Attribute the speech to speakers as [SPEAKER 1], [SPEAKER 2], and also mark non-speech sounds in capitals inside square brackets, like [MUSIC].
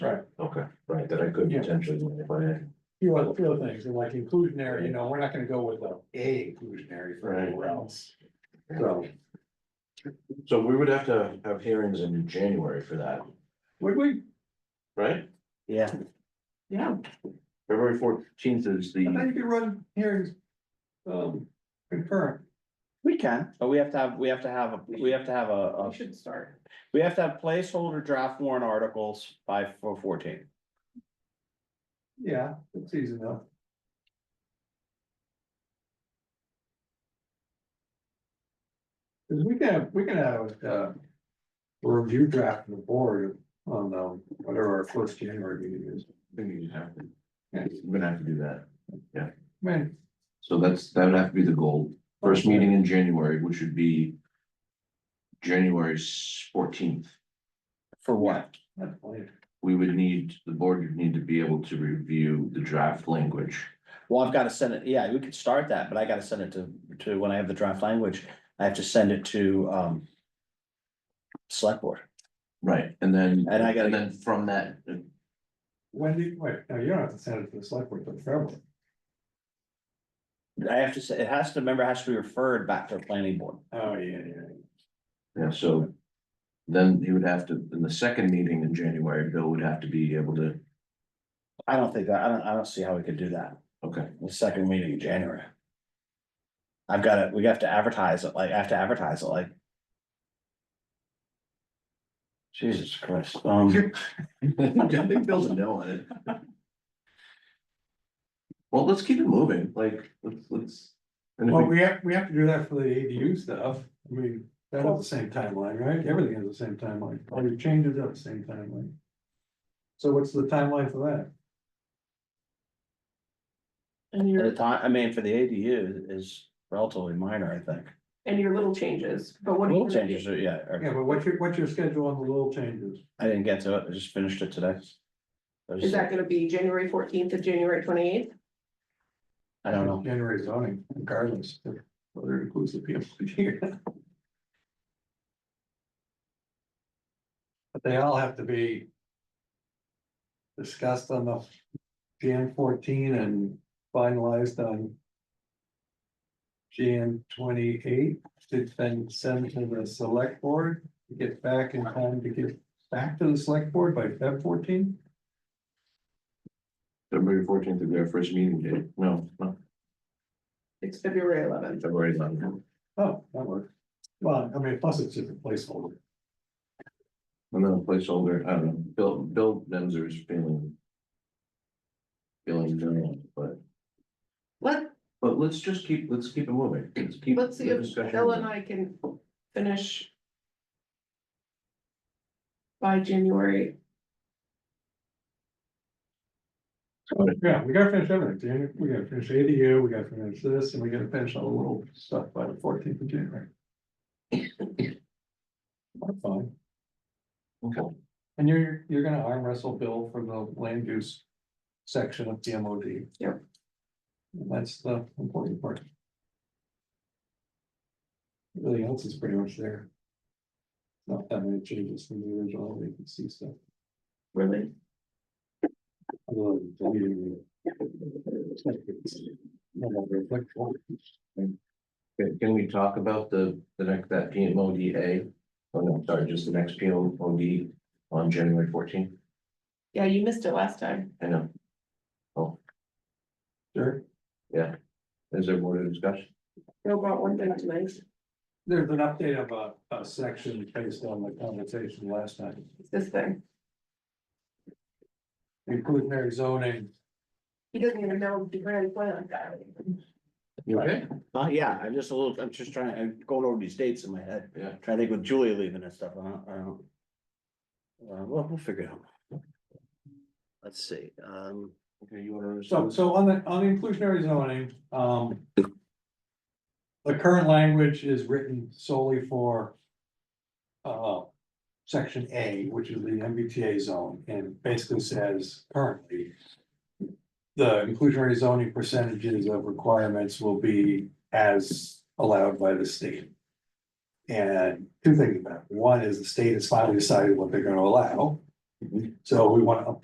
[SPEAKER 1] that could
[SPEAKER 2] Yeah.
[SPEAKER 1] potentially be in play.
[SPEAKER 2] few other, few other things, and like inclusionary, you know, we're not gonna go with a A inclusionary for
[SPEAKER 1] Right.
[SPEAKER 2] anywhere else. So,
[SPEAKER 1] So we would have to have hearings in January for that,
[SPEAKER 2] would we?
[SPEAKER 1] right?
[SPEAKER 3] Yeah,
[SPEAKER 2] Yeah,
[SPEAKER 1] February fourteenth is
[SPEAKER 2] I think
[SPEAKER 1] the,
[SPEAKER 2] you could run hearings, um, concurrent.
[SPEAKER 3] we can, but we have to have, we have to have, a we have to have a, a-
[SPEAKER 4] We should start.
[SPEAKER 3] we have to have placeholder draft warrant articles by four fourteen.
[SPEAKER 2] Yeah, it's easy enough. Cause we can, we can have, uh, a review draft of the board on, um, whatever our first January meeting is.
[SPEAKER 1] I think you have to,
[SPEAKER 2] Yeah,
[SPEAKER 1] we're gonna have to do that.
[SPEAKER 2] man,
[SPEAKER 1] So that's, that would have to be the goal. First meeting in January, which would be January fourteenth.
[SPEAKER 3] For what?
[SPEAKER 2] that's plenty.
[SPEAKER 1] We would need, the board would need to be able to review the draft language.
[SPEAKER 3] Well, I've gotta send it, yeah, we could start that, but I gotta send it to, to, when I have the draft language, I have to send it to, um. Select board,
[SPEAKER 1] Right, and then,
[SPEAKER 3] And I gotta-
[SPEAKER 1] and then from that, uh,
[SPEAKER 2] When do you wait, no, you don't have to send it to the select board, but February.
[SPEAKER 3] I have to say, it has to, remember, it has to be referred back to the planning board.
[SPEAKER 2] Oh, yeah, yeah.
[SPEAKER 1] yeah, so. Then he would have to, in the second meeting in January, Bill would have to be able to,
[SPEAKER 3] I don't think that, I don't, I don't see how we could do that,
[SPEAKER 1] okay,
[SPEAKER 3] the second meeting in January. I've got to, we have to advertise it, like, I have to advertise it, like. Jesus Christ, [LAUGHS] um,
[SPEAKER 1] I think Bill's a no on it. Well, let's keep it moving, like, let's, let's. and if
[SPEAKER 2] Well,
[SPEAKER 1] we-
[SPEAKER 2] we have, we have to do that for the ADU stuff. I mean, that is the same timeline, right? Everything is the same timeline. All your changes are the same timeline. So what's the timeline for that?
[SPEAKER 4] And
[SPEAKER 3] at the
[SPEAKER 4] your,
[SPEAKER 3] time, I mean, for the ADU is relatively minor, I think.
[SPEAKER 4] and your little changes, but what? do you
[SPEAKER 3] Little
[SPEAKER 4] really-
[SPEAKER 3] changes, yeah,
[SPEAKER 2] Yeah,
[SPEAKER 3] or-
[SPEAKER 2] but what's your, what's your schedule on the little changes?
[SPEAKER 3] I didn't get to it, I just finished it today. I was-
[SPEAKER 4] Is that gonna be January fourteenth to January twenty eighth?
[SPEAKER 3] I don't know,
[SPEAKER 2] January zoning regardless of whether it includes the [LAUGHS] PMPG. But they all have to be discussed on the Jan fourteen and finalized on Jan twenty-eight, to then send to the select board, to get back in time to get back to the select board by Feb fourteen?
[SPEAKER 1] February fourteenth would be our first meeting date, no, no,
[SPEAKER 4] It's February eleventh.
[SPEAKER 1] February eleventh,
[SPEAKER 2] Oh, that works. Well, I mean, plus it's just a placeholder.
[SPEAKER 1] and then a placeholder, I don't know, Bill, Bill Benzer is feeling. Feeling general, but,
[SPEAKER 4] Let,
[SPEAKER 1] but let's just keep, let's keep it moving, let's keep.
[SPEAKER 4] let's see
[SPEAKER 1] the
[SPEAKER 4] if
[SPEAKER 1] discussion
[SPEAKER 4] Bill
[SPEAKER 1] moving.
[SPEAKER 4] and I can finish by January.
[SPEAKER 2] Yeah, we gotta finish everything, Jan- we gotta finish ADU, we gotta finish this, and we gotta finish all the little stuff by the fourteenth of January. That's fine,
[SPEAKER 1] Okay,
[SPEAKER 2] and you're, you're gonna arm wrestle Bill for the land use section of the MOD.
[SPEAKER 4] Yep.
[SPEAKER 2] And That's the important part. Everything else is pretty much there. Not that many changes from the original, we can see stuff.
[SPEAKER 4] Really?
[SPEAKER 2] Well, deleting the- No, no, reflect on it.
[SPEAKER 1] can- can we talk about the, the next, that PMODA? Oh, no, I'm sorry, just the next PMOD on January fourteenth,
[SPEAKER 4] Yeah, you missed it last time.
[SPEAKER 1] I know,
[SPEAKER 2] Sure,
[SPEAKER 1] is there more to discuss?
[SPEAKER 4] Bill brought one thing tonight.
[SPEAKER 2] there's an update of a, a section based on the conversation last night,
[SPEAKER 4] It's this thing.
[SPEAKER 2] inclusionary zoning.
[SPEAKER 4] He doesn't even know the grand plan.
[SPEAKER 1] You okay?
[SPEAKER 3] uh, yeah, I'm just a little, I'm just trying, I'm going over these dates in my head,
[SPEAKER 1] Yeah.
[SPEAKER 3] trying to think with Julia leaving and stuff, I don't, I don't. Uh, well, we'll figure it out. Let's see, um.
[SPEAKER 1] Okay, you wanna?
[SPEAKER 2] So, so on the, on the inclusionary zoning, um. The current language is written solely for. Uh, section A, which is the MBTA zone, and basically says currently. The inclusionary zoning percentages of requirements will be as allowed by the state. And two things about it, one is the state has finally decided what they're gonna allow.
[SPEAKER 1] Mhm.
[SPEAKER 2] So we wanna update